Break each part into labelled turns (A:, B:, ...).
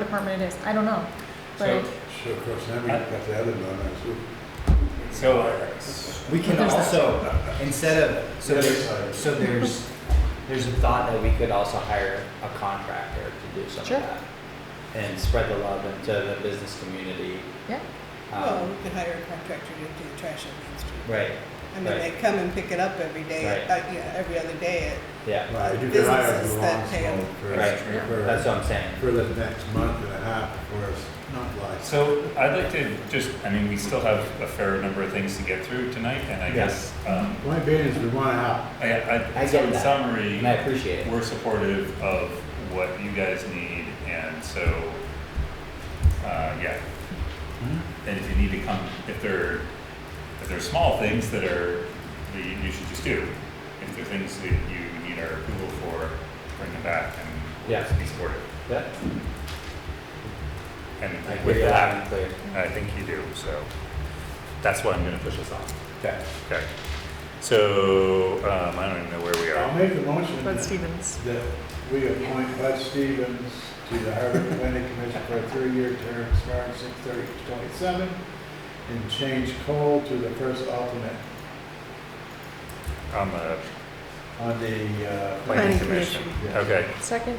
A: department it is, I don't know. But
B: So,
C: So of course, now we have got the other one, that's it.
B: so, uh,
D: We can
A: There's that.
D: also, instead of, so
C: The other
D: there's,
C: side.
D: so there's, there's a thought that we could also hire a contractor to do some of
A: Sure.
D: that. And spread the love into the business community.
A: yeah,
E: Well,
D: Um,
E: we could hire a contractor to do the trash on Main Street.
D: Right,
E: I mean,
D: right.
E: they come and pick it up every day,
D: Right.
E: uh, yeah, every other day
D: yeah,
C: Right, you could hire
E: Businesses
C: the
E: that
C: long
E: pay
C: smoke
D: Right.
C: for,
D: that's
C: for,
D: what I'm saying.
C: for the next month and a half before it's not like.
B: so I'd like to just, I mean, we still have a fair number of things to get through tonight, and I
D: Yeah.
B: guess, um,
C: Point being is we want to help.
B: I, I,
D: I
B: so
D: get
B: in
D: that.
B: summary,
D: And I appreciate it.
B: we're supportive of what you guys need, and so, uh, yeah.
D: Hmm?
B: And if you need to come, if there, if there are small things that are, that you, you should just do. If there are things that you need our approval for, bring them back and we'll
D: Yeah.
B: just be supportive.
D: Yeah, I
B: And
D: hear
B: with
D: you loud and
B: that,
D: clear.
B: I think you do, so that's why I'm gonna push us off.
D: Okay.
B: Okay. So, um, I don't even know where we
C: I'll
B: are.
C: make a motion
A: Bud
C: that
A: Stevens.
C: that we appoint Bud Stevens to the Harbor Planning Commission for a three-year term expiring six thirty twenty-seven and change Cole to the first alternate
B: on the
C: on the, uh,
B: planning
A: Planning
B: commission.
C: commission.
B: Okay.
A: Second,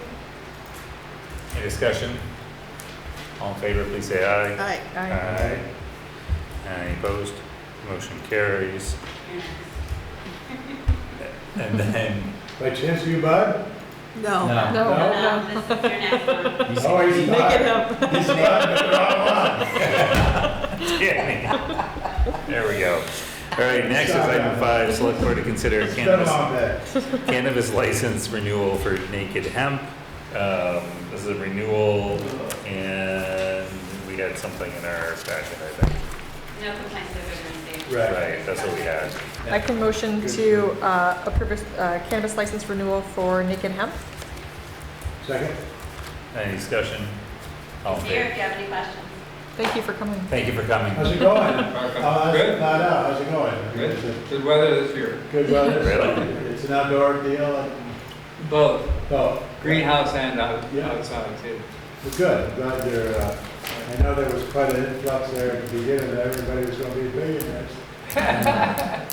B: Any discussion? All in favor, please say
E: at,
B: aye.
E: I,
A: I,
B: Any opposed? Motion carries. And then,
C: by chance you, Bud?
E: no.
A: Oh, no,
D: No.
A: no,
F: This is your next one.
D: He's-
C: Oh, he's
A: make
C: not.
A: it up.
C: He's not, but they're all on.
B: yeah. There we go. All right, next is item five, select board to consider
C: It's been a
B: cannabis,
C: long day.
B: cannabis license renewal for Naked Hemp. Um, this is a renewal and we had something in our packet, I think.
F: No complaints of emergency.
C: Right.
B: Right, that's what we had.
A: I can motion to uh, approve a uh, cannabis license renewal for Naked Hemp.
C: Second?
B: Any discussion? All in
F: Here, if
B: favor?
F: you have any questions.
A: Thank you for coming.
B: Thank you for coming.
C: How's it going? Oh, that's
G: Good.
C: not out. How's it going?
G: Good, good weather this year.
C: Good weather.
B: Really?
C: It's an outdoor deal. and-
G: Both
C: Oh,
G: greenhouse and out-
C: Yeah.
G: outside too.
C: Well, Good. I'm Glad you're, uh, I know there was quite an influx there at the beginning, that everybody was gonna be billionaires.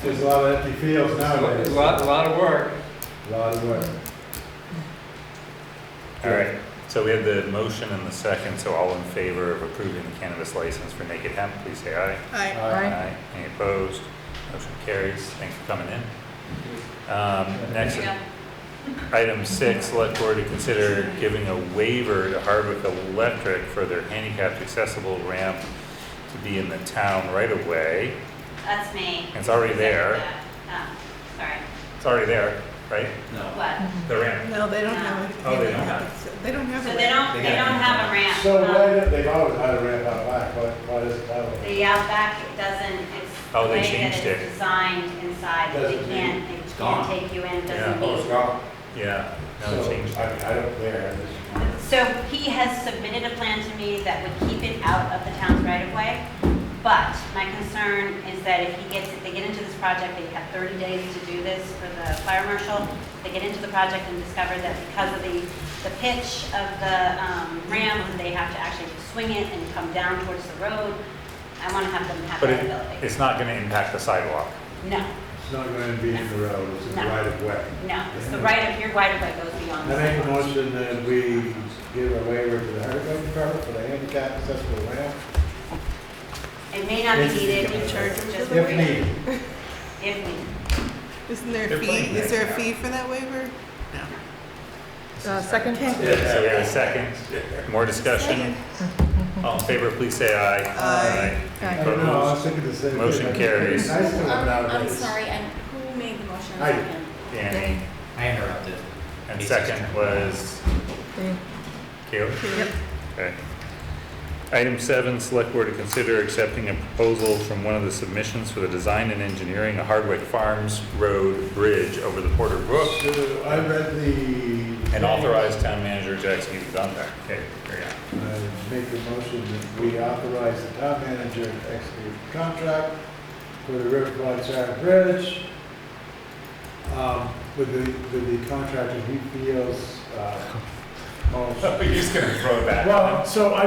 C: There's a lot of empty fields nowadays.
G: A lot, a lot of work.
C: Lot of work.
B: All right, so we have the motion and the second, so all in favor of approving the cannabis license for Naked Hemp, please say aye.
E: I,
C: All right.
A: Aye.
B: Any opposed? Motion carries. Thanks for coming in. Um, next,
F: Here you go.
B: item six, select board to consider giving a waiver to Harvick Electric for their handicapped accessible ramp to be in the town right away.
F: That's me.
B: It's already there.
F: Oh, Sorry,
B: It's already there, right?
D: No.
F: what?
B: The ramp.
E: no, they don't have a.
B: Oh, they don't have
E: a- They don't have
F: So
E: a.
F: they don't,
D: They
F: they
D: got-
F: don't have a ramp.
C: So
F: um,
C: why, did- they've always had a ramp out back, why, why does it have one?
F: The outback, it doesn't, it's.
B: Oh,
F: the
B: they
F: way that
B: changed
F: it's
B: it.
F: Designed inside, they
C: Doesn't mean-
F: can't, they
D: gone.
F: can't take you
B: Yeah.
F: in, doesn't
C: Oh,
F: mean.
C: it's gone.
B: Yeah, now
C: So,
B: it changed.
C: I mean, I don't care. I'm just-
F: So he has submitted a plan to me that would keep it out of the town's right of way. But my concern is that if he gets, if they get into this project, they have 30 days to do this for the fire marshal. They get into the project and discover that because of the, the pitch of the um, ramp, they have to actually swing it and come down towards the road. I want to have them have
B: But
F: that
B: it,
F: ability.
B: it's not gonna impact the sidewalk.
F: No,
C: It's not gonna be in the road, it's in the
F: No.
C: right of way.
F: no, it's the right of, your right of way goes beyond.
C: I
F: the
C: make a
F: sidewalk.
C: motion that we give a waiver to the Hardwick Department for the handicap accessible ramp.
F: It may not be
C: If-
F: needed,
C: if- If
F: just.
C: needed.
F: If needed.
E: Isn't there
B: They're
E: a fee,
B: playing
E: is
B: that
E: there
B: now.
E: a fee for that waiver?
A: Uh, Second?
B: So we have a second, more discussion. All in favor, please say aye.
E: Aye.
C: I don't know, I was thinking the same. thing.
B: Motion carries.
C: Nice to have it out
H: I'm,
C: of
H: I'm
C: this.
H: sorry, and who made the motion?
C: I did.
H: Second.
B: Danny,
D: I interrupted.
B: and second was
A: Okay.
B: Caleb? Okay. Item seven, select board to consider accepting a proposal from one of the submissions for the design and engineering of Hardwick Farms Road Bridge over the Porter Brook
C: So I read the.
B: and authorize town manager to execute the contract. Okay, there you go.
C: I make the motion that we authorize the town manager to execute the contract for the Riverfront Charter Bridge. Um, with the, with the contractor he feels, uh,
I: Oh,
B: You're just gonna throw that.
C: Well, so I